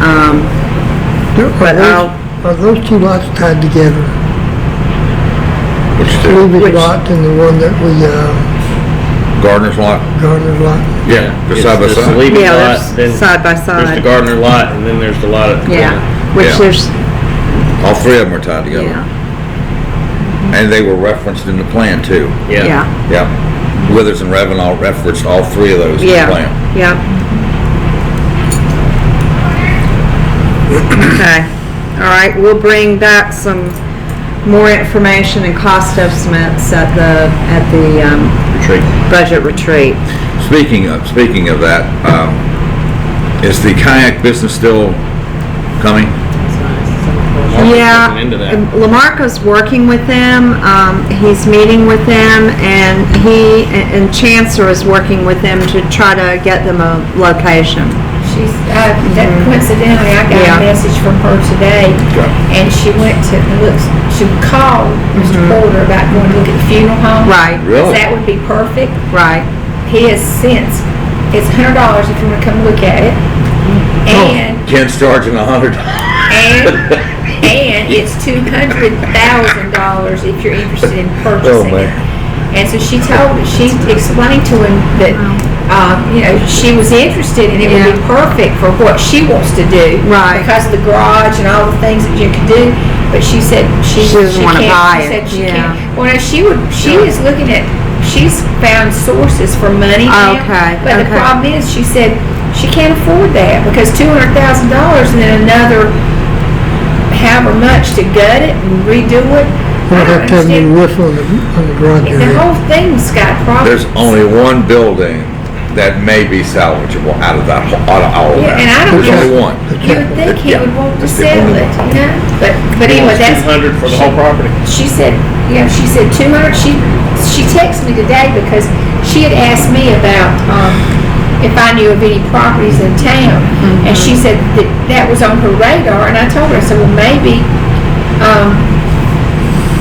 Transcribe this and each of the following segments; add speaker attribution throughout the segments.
Speaker 1: Um,
Speaker 2: Are
Speaker 1: I'll-
Speaker 2: those, are those two lots tied together?
Speaker 3: Which two?
Speaker 2: Levy
Speaker 1: Which-
Speaker 2: lot and the one that we, uh,
Speaker 3: Gardner's lot?
Speaker 2: Gardner lot?
Speaker 3: Yeah. Just side by
Speaker 4: It's the
Speaker 3: side?
Speaker 4: Levy
Speaker 1: Yeah,
Speaker 4: lot,
Speaker 1: that's
Speaker 4: then
Speaker 1: side by
Speaker 4: there's the
Speaker 1: side.
Speaker 4: Gardner lot, and then there's the lot at the corner.
Speaker 1: Yeah, which
Speaker 3: Yeah.
Speaker 1: there's,
Speaker 3: All three of them are tied together.
Speaker 1: yeah,
Speaker 3: And they were referenced in the plan too.
Speaker 4: Yeah.
Speaker 1: yeah,
Speaker 3: Yeah. Withers and Revenant referenced all three of those in the plan.
Speaker 1: yeah, yeah. Okay, all right, we'll bring back some more information and cost estimates at the, at the, um,
Speaker 4: Retreat.
Speaker 1: budget retreat.
Speaker 3: Speaking of, speaking of that, um, is the kayak business still coming?
Speaker 1: Yeah,
Speaker 4: Looking into that.
Speaker 1: Lamarcos working with them, um, he's meeting with them, and he, and Chancellor is working with them to try to get them a location.
Speaker 5: She's, uh, that coincidentally, I got
Speaker 1: Yeah.
Speaker 5: a message from her today, and she went to, looks, she called Mr. Porter about going to look at the funeral home.
Speaker 1: Mm-hmm. Right,
Speaker 3: Really?
Speaker 5: That would be perfect.
Speaker 1: right,
Speaker 5: He has since, it's hundred dollars if you want to come look at it.
Speaker 1: Oh.
Speaker 5: And,
Speaker 3: Oh. Ken's charging a hundred.
Speaker 5: and, and it's two hundred thousand dollars if you're interested in
Speaker 3: Oh,
Speaker 5: purchasing it.
Speaker 3: man.
Speaker 5: And so she told, she explained to him that, um, you know, she was interested and it would be perfect for what she wants to do.
Speaker 1: Right.
Speaker 5: Because of the garage and all the things that you can do, but she said she,
Speaker 1: She doesn't
Speaker 5: she
Speaker 1: wanna
Speaker 5: can't,
Speaker 1: buy
Speaker 5: she
Speaker 1: it,
Speaker 5: said she
Speaker 1: yeah.
Speaker 5: can't. Well, now she would, she is looking at, she's found sources for money now.
Speaker 1: Oh, Okay,
Speaker 5: But the
Speaker 1: okay.
Speaker 5: problem is, she said she can't afford that because two hundred thousand dollars and then another however much to gut it and redo it. I
Speaker 2: We'll
Speaker 5: don't
Speaker 2: have to have a
Speaker 5: understand.
Speaker 2: new roof on the, on the garage
Speaker 5: The
Speaker 2: area.
Speaker 5: whole thing's got problems.
Speaker 3: There's only one building that may be salvageable out of that, whole- out of all of
Speaker 5: Yeah,
Speaker 3: that.
Speaker 5: and I don't
Speaker 3: There's only
Speaker 5: know-
Speaker 3: one.
Speaker 5: You would think he
Speaker 3: Yeah.
Speaker 5: would want to
Speaker 3: That's the
Speaker 5: sell
Speaker 3: only
Speaker 5: it, you know? But, but
Speaker 4: He
Speaker 5: anyway,
Speaker 4: wants
Speaker 5: that's,
Speaker 4: 200 for the whole property.
Speaker 5: she said, yeah, she said two hundred, she, she texted me today because she had asked me about, um, if I knew of any properties in town. And she said that that was on her radar, and I told her, I said, well, maybe, um,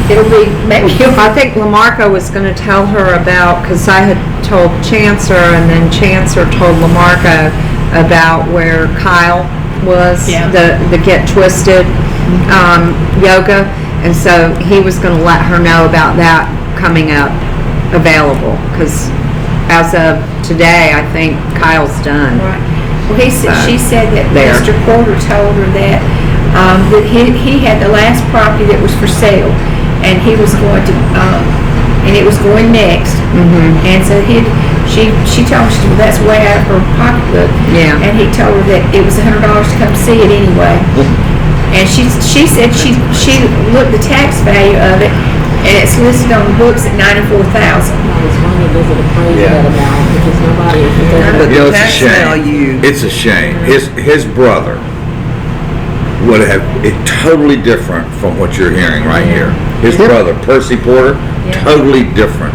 Speaker 5: it'll be, maybe you'll
Speaker 1: I think Lamarco was gonna tell her about, because I had told Chancellor, and then Chancellor told Lamarco about where Kyle was,
Speaker 5: Yeah.
Speaker 1: the, the Get Twisted, um, yoga, and so he was gonna let her know about that coming up, available, because as of today, I think Kyle's done.
Speaker 5: Right. Well, he said,
Speaker 1: So,
Speaker 5: she said that
Speaker 1: there.
Speaker 5: Mr. Porter told her that, um, that he, he had the last property that was for sale, and he was going to, um, and it was going next. Mm-hmm. And so he, she, she told him, she said, well, that's way out of her pocketbook.
Speaker 1: Yeah.
Speaker 5: And he told her that it was a hundred dollars to come see it anyway. And she, she said she, she looked the tax value of it, and it's listed on the books at ninety-four thousand.
Speaker 6: It's funny, does it appraise that amount? Because nobody, if they're
Speaker 3: You know, it's a
Speaker 7: Tax
Speaker 3: shame.
Speaker 7: value.
Speaker 3: It's a shame. His, his brother would have, it totally different from what you're hearing right here. His brother, Percy Porter, totally different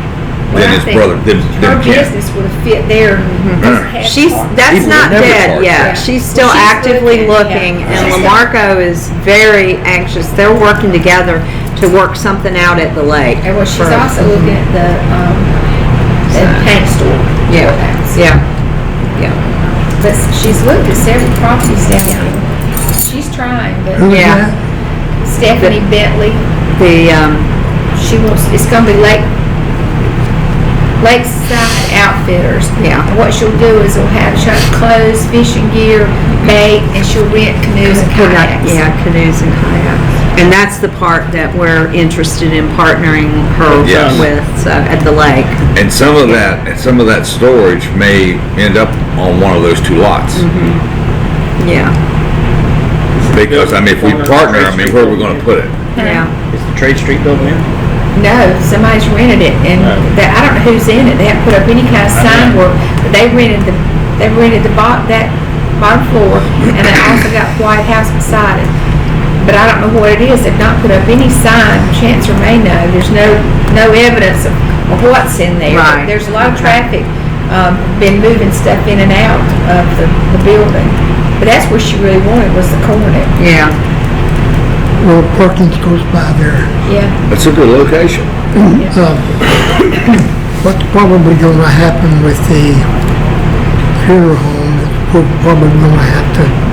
Speaker 5: Well,
Speaker 3: than
Speaker 5: I
Speaker 3: his
Speaker 5: think
Speaker 3: brother, than, than
Speaker 5: Her
Speaker 3: Ken.
Speaker 5: business would have fit there.
Speaker 3: Mm-hmm.
Speaker 1: She's, that's
Speaker 3: People
Speaker 1: not
Speaker 3: never
Speaker 1: dead
Speaker 3: part.
Speaker 1: yet.
Speaker 5: Yeah.
Speaker 1: She's still
Speaker 5: She's
Speaker 1: actively
Speaker 5: looking,
Speaker 1: looking,
Speaker 5: yeah.
Speaker 1: and
Speaker 5: She's-
Speaker 1: Lamarco is very anxious. They're working together to work something out at the lake.
Speaker 5: And well, she's
Speaker 1: for-
Speaker 5: also looking at the, um, the paint store.
Speaker 1: Yeah, yeah, yeah.
Speaker 5: But she's looked at several properties down there. She's trying,
Speaker 2: Who
Speaker 5: but
Speaker 2: was
Speaker 1: Yeah.
Speaker 2: that?
Speaker 5: Stephanie Bentley,
Speaker 1: The, um,
Speaker 5: she wants, it's gonna be Lake, Lakeside Outfitters.
Speaker 1: Yeah.
Speaker 5: And what she'll do is she'll have, she'll have clothes, fishing gear,
Speaker 1: Mm-hmm.
Speaker 5: bait, and she'll rent canoes and
Speaker 1: kayak-
Speaker 5: kayaks.
Speaker 1: yeah, canoes and kayaks. And that's the part that we're interested in partnering her
Speaker 3: Yes.
Speaker 1: with, so, at the lake.
Speaker 3: And some of that, and some of that storage may end up on one of those two lots.
Speaker 5: Mm-hmm.
Speaker 1: Yeah,
Speaker 3: Because, I mean, if we partner, I mean, where are we gonna put it?
Speaker 1: yeah.
Speaker 4: Is the Trade Street building in?
Speaker 5: No, somebody's rented it, and
Speaker 4: Oh.
Speaker 5: that, I don't know who's in it, they haven't put up any kind of sign work, but they rented the, they rented the bot, that bottom floor, and they also got White House beside it. But I don't know what it is, they've not put up any sign, Chancellor may know, there's no, no evidence of, of what's in there.
Speaker 1: Right.
Speaker 5: There's a lot of traffic, um, been moving stuff in and out of the, the building, but that's where she really wanted, was the corner,
Speaker 1: Yeah,
Speaker 2: Well, Perkins goes by there.
Speaker 5: yeah.
Speaker 3: That's a good location.
Speaker 2: Um, What's probably gonna happen with the funeral home, is we're probably gonna have to